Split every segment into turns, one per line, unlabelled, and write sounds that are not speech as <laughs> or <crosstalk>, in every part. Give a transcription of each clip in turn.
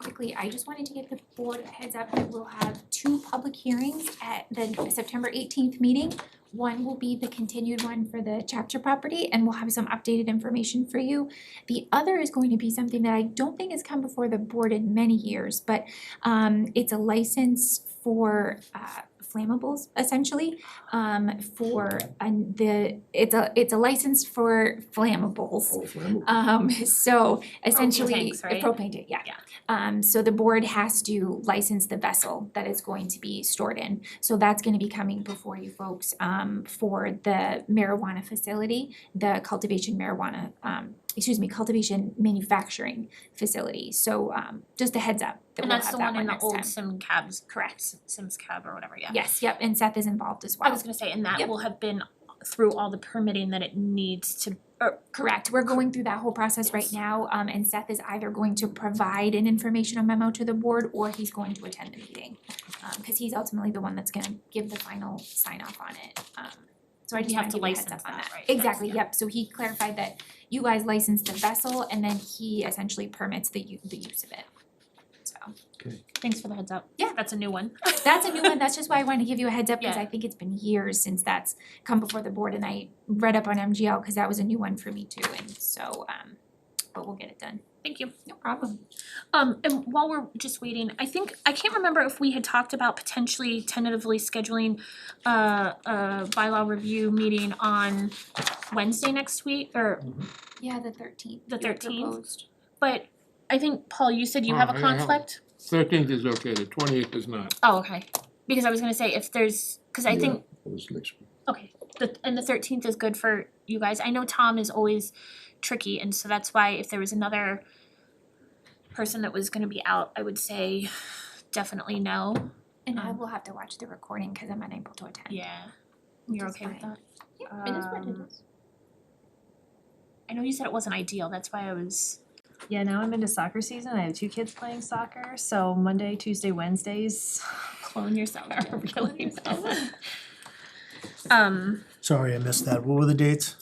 quickly, I just wanted to give the board a heads up, we will have two public hearings at the September eighteenth meeting. One will be the continued one for the chapter property and we'll have some updated information for you. The other is going to be something that I don't think has come before the board in many years, but um it's a license for uh flammables essentially. Um for and the it's a it's a license for flammables.
Oh, flammable.
Um <laughs> so essentially
tanks, right?
uh, propane tank, yeah.
Yeah.
Um so the board has to license the vessel that it's going to be stored in. So that's gonna be coming before you folks um for the marijuana facility, the cultivation marijuana um excuse me, cultivation manufacturing facility. So um just a heads up that
And
we'll
that's
have
the
that
one
one
in the
next
old
time.
Sim Cabs, correct, S- Sims Cab or whatever, yeah.
Yes, yep, and Seth is involved as well.
I was gonna say, and that
Yep.
will have been through all the permitting that it needs to, or
Correct, we're going through that whole process right now, um and Seth is either going to provide an informational memo to the board or he's going to attend the meeting. Um cause he's ultimately the one that's gonna give the final sign off on it, um so I
We
just
have
wanna
to
give you a heads up
license
on
that,
that.
right?
Exactly,
That's- yeah.
yep, so he clarified that you guys license the vessel and then he essentially permits the u- the use of it. So,
thanks for the heads up.
Yeah.
That's a new
<laughs>
one.
that's a new one, that's just why I wanted to give you a heads up, cause
Yeah.
I think it's been years since that's come before the board and I read up on MGL, cause that was a new one for me too, and so um but we'll get it done.
Thank you.
No problem.
Um, and while we're just waiting, I think, I can't remember if we had talked about potentially tentatively scheduling uh, a bylaw review meeting on Wednesday next week, or,
Yeah, the thirteenth.
The 13th? but I think, Paul, you said you
Oh,
have a
I don't know.
conflict?
Thirteenth is okay, the twentieth is not.
Oh, okay. Because I was gonna say if there's, cause I think,
That was next week.
okay, the, and the thirteenth is good for you guys. I know Tom is always tricky, and so that's why if there was another person that was gonna be out, I would say definitely no.
And I
Um,
will have to watch the recording because I'm unable to attend.
Yeah. You're
Which is
okay with
fine.
that?
Yeah, it is what it
Um,
is.
I know you said it wasn't ideal, that's why I was,
Yeah, now I'm into soccer season. I have two kids playing soccer, so Monday, Tuesday, Wednesdays.
clone <laughs> yourself, really well. Um,
Sorry, I missed that. What were the dates?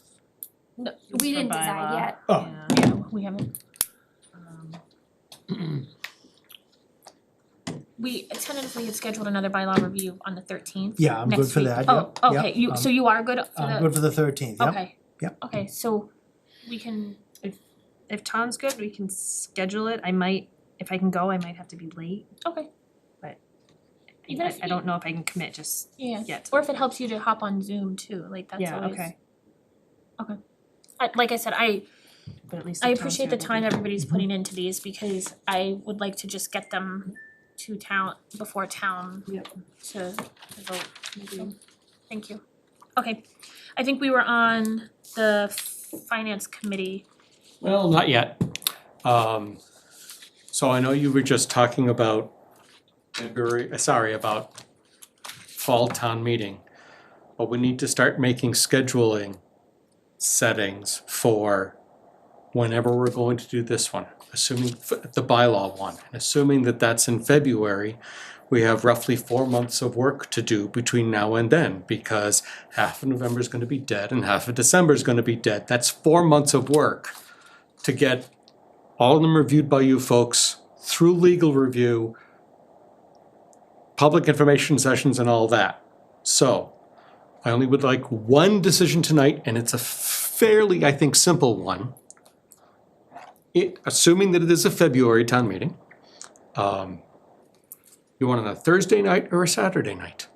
no,
We didn't
for
decide
bylaw.
yet.
Oh.
Yeah.
no, we haven't
Um,
We tentatively had scheduled another bylaw review on the thirteenth.
Yeah, I'm good for that.
Oh,
Yep, yep.
okay, you, so
I'm-
you are good for
I'm
the,
good for the thirteenth, yep.
okay.
yep.
Okay, so we can,
If Tom's good, we can schedule it. I might, if I can go, I might have to be late.
okay,
I-
Even if
I don't know if I can commit just
yeah,
yet.
or if it helps you to hop on Zoom too, like that's
Yeah,
always.
okay.
I, like I said, I,
But at least
I
if Tom's
appreciate
here,
the
we'll
time
be-
everybody's putting into these because I would like to just get them to town, before town
Yep.
to to vote. So, Thank you. Okay, I think we were on the finance committee.
Well, not yet. Um, so I know you were just talking about February, uh, sorry, about fall town meeting. But we need to start making scheduling settings for whenever we're going to do this one, assuming f- the bylaw one. and Assuming that that's in February, we have roughly four months of work to do between now and then because half of November is going to be dead and half of December is going to be dead. That's four months of work to get all of them reviewed by you folks through legal review, public information sessions, and all that. So I only would like one decision tonight, and it's a fairly, I think, simple one. It, assuming that it is a February town meeting, um, you want it on a Thursday night or a Saturday night?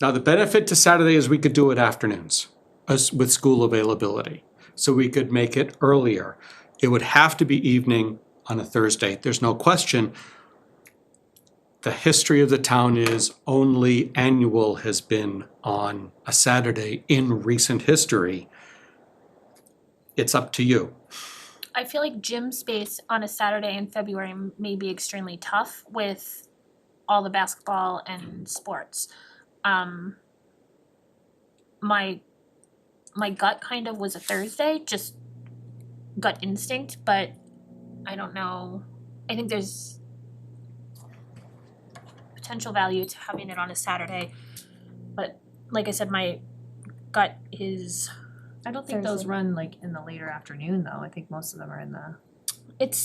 Now, the benefit to Saturday is we could do it afternoons us- with school availability. So we could make it earlier. It would have to be evening on a Thursday. There's no question. The history of the town is only annual has been on a Saturday in recent history. It's up to you.
I feel like gym space on a Saturday in February m- may be extremely tough with all the basketball and sports. Um, my my gut kind of was a Thursday, just gut instinct, but I don't know. I think there's potential value to having it on a Saturday, but like I said, my gut is
I don't think those
Thursday.
run like in the later afternoon though. I think most of them are in the
it's